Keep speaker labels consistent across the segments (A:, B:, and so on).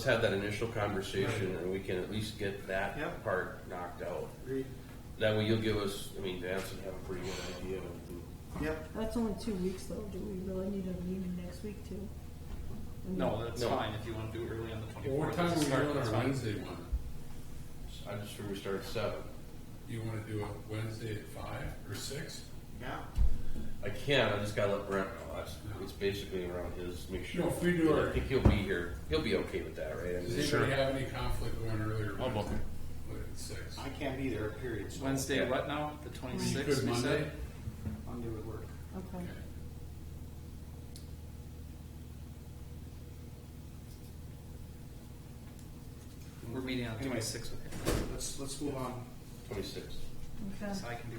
A: Let's have that initial conversation and we can at least get that
B: Yep.
A: part knocked out.
B: Agreed.
A: That way you'll give us, I mean, Vance would have a pretty good idea. of
B: Yep.
C: That's only two weeks though, do we really need a meeting next week too? I mean,
D: No, that's
A: No.
D: fine, if you wanna do it early on the
E: Well, what
D: twenty-fourth,
E: time are
D: that's a
E: we
D: start,
E: doing
D: that's
E: our
D: fine.
E: Wednesday one?
A: the- I just figured we start at seven.
E: You wanna do it Wednesday at five or six?
B: Yeah.
A: I can, I just gotta let Brent know. That's, it's basically around his, make sure.
E: No, if we do our-
A: I think he'll be here. He'll be okay with that, right? I mean,
E: Does anybody have any conflict going earlier?
F: I'll book
E: Wednesday? Look at six.
B: I can't be there, period. So
D: Wednesday,
A: Yeah.
D: what now, the
E: You
D: twenty-sixth,
E: could
D: we
E: Monday?
D: said?
B: Monday would work.
C: Okay,
E: Okay.
D: We're meeting on the
B: Anyway.
D: twenty-sixth,
B: Let's, let's move on.
A: Twenty-six.
C: okay.
D: so I can do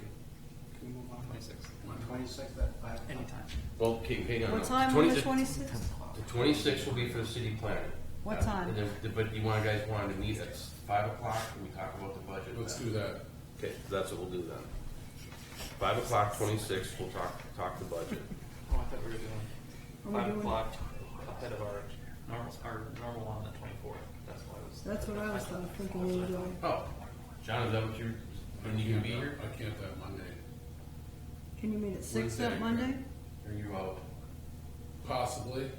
B: Can we move on?
D: twenty-sixth,
B: Twenty-sixth at five o'clock.
D: anytime.
A: Well, okay, hang on.
C: What
A: now.
C: time on the
A: 26
C: twenty-sixth?
A: The twenty-six will be for the city planning.
C: What
A: Uh,
C: time?
A: and then- But you want, guys wanted to meet at five o'clock and we talk about the budget.
E: Let's
A: then.
E: do that.
A: Okay, so that's what we'll do then. Five o'clock, twenty-six, we'll talk, talk the budget.
D: Oh, I thought we were doing
C: we
D: five
C: doing-
D: o'clock ahead of our normal, our normal on the twenty-fourth, that's why I was.
C: That's what I was thinking, we were doing.
A: Oh, John, is that what you're, when you can be here?
E: I can't that Monday,
C: Can you meet at six
E: Wednesday,
C: that Monday?
A: Are you out?
E: possibly.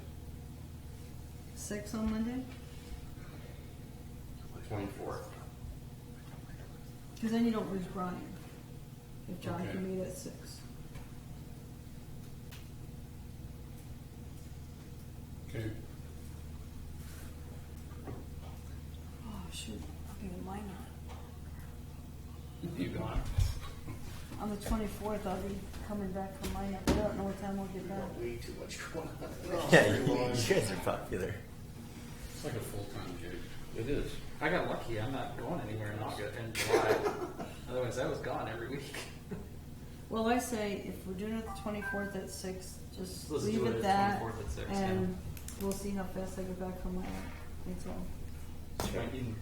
C: Six on Monday?
A: Twenty-fourth.
C: Cause then you don't lose Brian, if John
E: Okay.
C: can meet at six.
E: Okay,
C: Oh, shoot, even mine not.
D: You gone?
C: On the twenty-fourth, I'll be coming back from mine, I don't know what time I'll get back.
B: Way too much going on.
F: Yeah, you, you guys are popular.
E: it's like a full-time gig.
A: It is.
D: I got lucky, I'm not going anywhere in August, in July, otherwise I was gone every week.
C: Well, I say if we're doing it the twenty-fourth at six, just
D: Let's
C: leave
D: do
C: it
D: it
C: that.
D: 24th at six, yeah.
C: And we'll see how fast I get back from my, that's all.
D: She might need,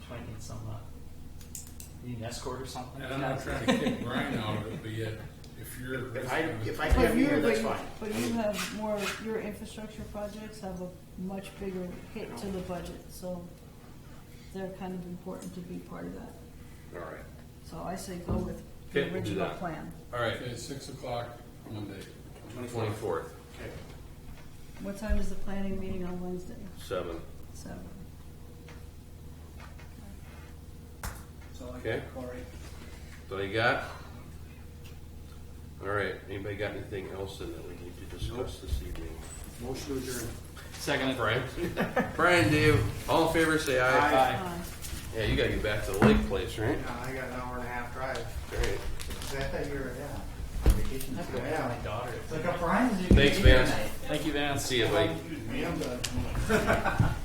D: she might need some, uh, need an escort or something.
E: And I'm not trying to kick Brian out of it, but yet, if you're.
B: If I, if I
C: But
B: can't be
C: you,
B: there,
C: but
B: that's
C: you,
B: fine.
C: but you have more, your infrastructure projects have a much bigger hit to the budget, so they're kind of important to be part of that.
A: All right.
C: So I say go with
A: Okay,
C: the
A: we'll do
C: original
A: that.
C: plan.
A: All right,
E: Okay, six o'clock Monday.
A: twenty-fourth,
B: Okay.
C: What time is the planning meeting on Wednesday?
A: seven.
C: Seven.
B: So I
A: Okay.
B: got Corey.
A: So you got? All right, anybody got anything else in that we need to discuss this evening?
B: Motion to adjourn.
D: Second.
A: Brian? Brian, Dave, all in favor, say aye.
D: Bye.
C: Aye.
A: Yeah, you gotta get back to the lake place, right?
B: Yeah, I got an hour and a half drive.
A: All right.
B: Is that that you're, yeah.
G: Vacation.
D: I have to go
B: Yeah.
D: back to my daughter.
G: Look up Ryan's.
A: Thanks, Vance.
D: Thank you, Vance.
A: See you, buddy.
B: Man, I'm done.